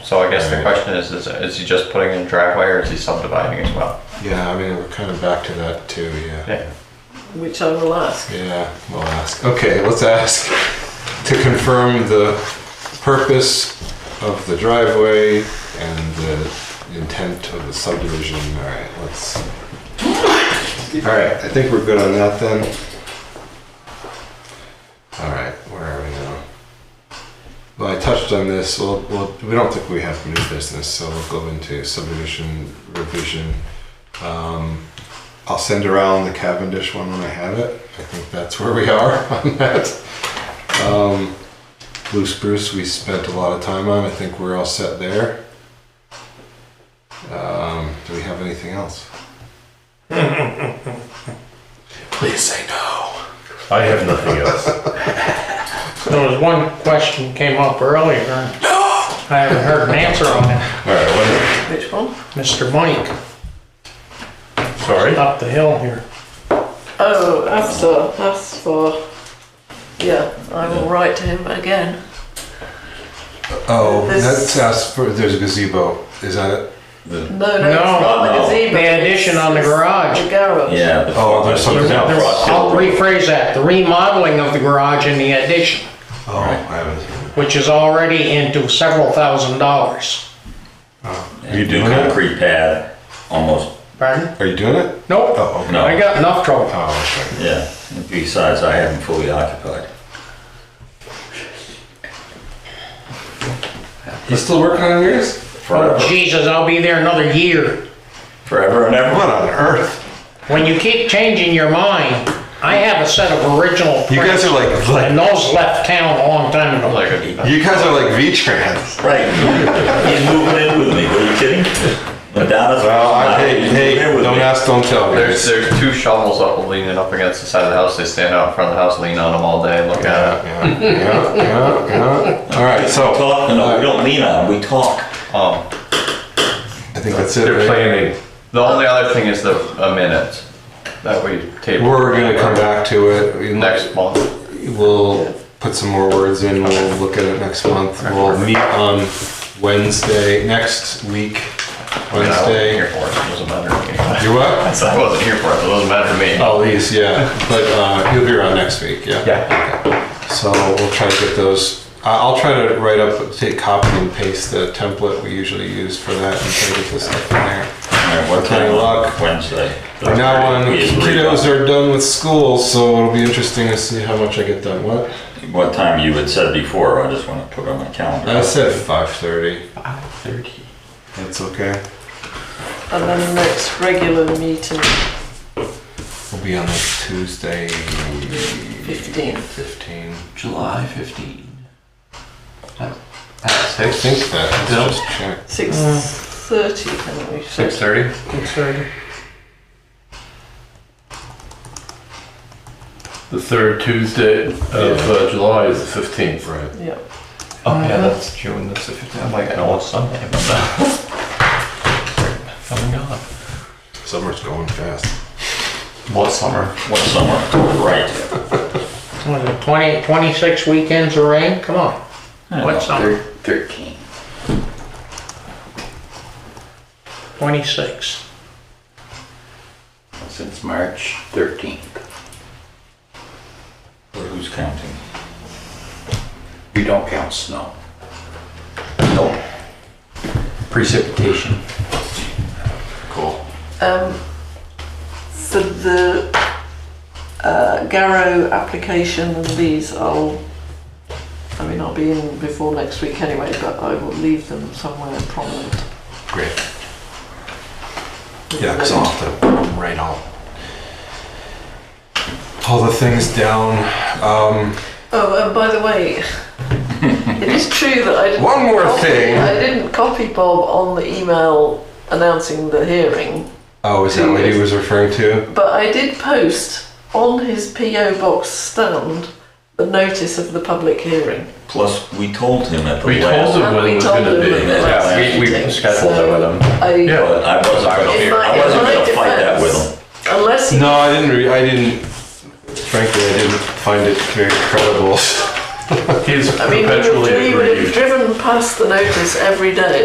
So I guess the question is, is, is he just putting in a driveway or is he subdividing as well? Yeah, I mean, we're kind of back to that too, yeah. Yeah. which I will ask. Yeah, we'll ask. Okay, let's ask to confirm the purpose of the driveway and the intent of the subdivision. All right, let's. All right, I think we're good on that then. All right, where are we now? Well, I touched on this. Well, well, we don't think we have new business, so we'll go into subdivision revision. Um, I'll send around the Cavendish one when I have it. I think that's where we are on that. Um, Blue Spruce, we spent a lot of time on. I think we're all set there. Um, do we have anything else? Please say no. I have nothing else. There was one question came up earlier. and I haven't heard an answer on it. All right, what- Which one? Mr. Mike Sorry? up the hill here. Oh, Afsar, that's for. Yeah, I will write to him again. oh, This- that's us for. There's a gazebo. Is that it? No, no, it's No. not the No. gazebo. The addition on the It's- it's garage. The garage. Yeah. the- Oh, there's something Yeah, else. the Ross Hill I'll Road. rephrase that, the remodeling of the garage and the addition, Oh, I haven't. which is already into several thousand dollars. You do concrete pad, almost, Pardon? Are you doing it? Nope, Oh, okay. No. I got enough trouble. Oh, okay. yeah. Besides, I haven't fully occupied. You still working on yours? Oh, Forever, Oh, Jesus, I'll be there another year. forever and ever. What on earth? When you keep changing your mind, I have a set of original You guys prints, are like, And those left town a long time ago. Like a, you guys are like V-Trans. Right. He's moving in with me. Are you kidding? Madonna's. Well, I, hey, He's Uh, hey, moving in with don't me. ask, don't tell. there's, guys. there's two shovels up leaning up against the side of the house. They stand out in front of the house, lean on them all day, look at it. yeah, yeah, yeah, yeah. All right, We so uh, talk, no, no, we don't lean on, him, we talk. Um, I think that's it. They're right? planning. the only other thing is the, a minute that we table. We're gonna come back to it We- Next month. We'll put some more words in. We'll look at it next month. We'll meet on Wednesday next week. I mean, I wasn't here Wednesday. for it, so it doesn't matter to me. You what? I wasn't here for it, so it doesn't matter to me. Oh, these, yeah. But uh, you'll be around next week. Yeah. Yeah. So we'll try to get those. I- I'll try to write up, take copy and paste the template we usually use for that and try to get this stuff in there. All right, what time Okay, on look. Wednesday? From now on, We agreed kiddos are done with school, so it'll be interesting to see how much I get done. What? on What time you had said before, I just wanna put on my calendar. I said five thirty. Thirty. That's okay. And then the next regular meeting, We'll be on like Tuesday, 15. fifteen. July 15. At I six. think that. Bill? Let's just check. Mm. 6.30, can we say? Six thirty? The third Tuesday of uh, July is the fifteenth. Right. Yeah. Oh yeah, that's June. That's the 15th. I'm like, I Oh know it's Sunday, but that. Coming up. Summer's going fast. What summer? What summer? Right. What is it, 20, 26 weekends of rain? Come on. What summer? Thirteen. 26. Since March 13th. Who's counting? We don't count snow. No. Precipitation. Cool. Um, for the uh, Garrow application and these, I'll, I mean, I'll be in before next week anyway, but I will leave them somewhere prominent. Great. Yeah, because I'll have to write all all the things down. Um, Oh, and by the way, it is true that I didn't. One more copy, thing. I didn't copy Bob on the email announcing the hearing, oh, is that what he was referring to? but I did post on his PO box stand the notice of the public hearing. Plus, we told him at the We told last. him when We it was told gonna him be. when it was. Yeah. Yeah, we, we scheduled it with them. I, But I wasn't In gonna, my- I wasn't in my gonna fight that with defense- him. Unless you No, I didn't. Re- I didn't. Frankly, I didn't find it very credible. He's I mean, we would- perpetually we would have aggrieved. driven past the notice every day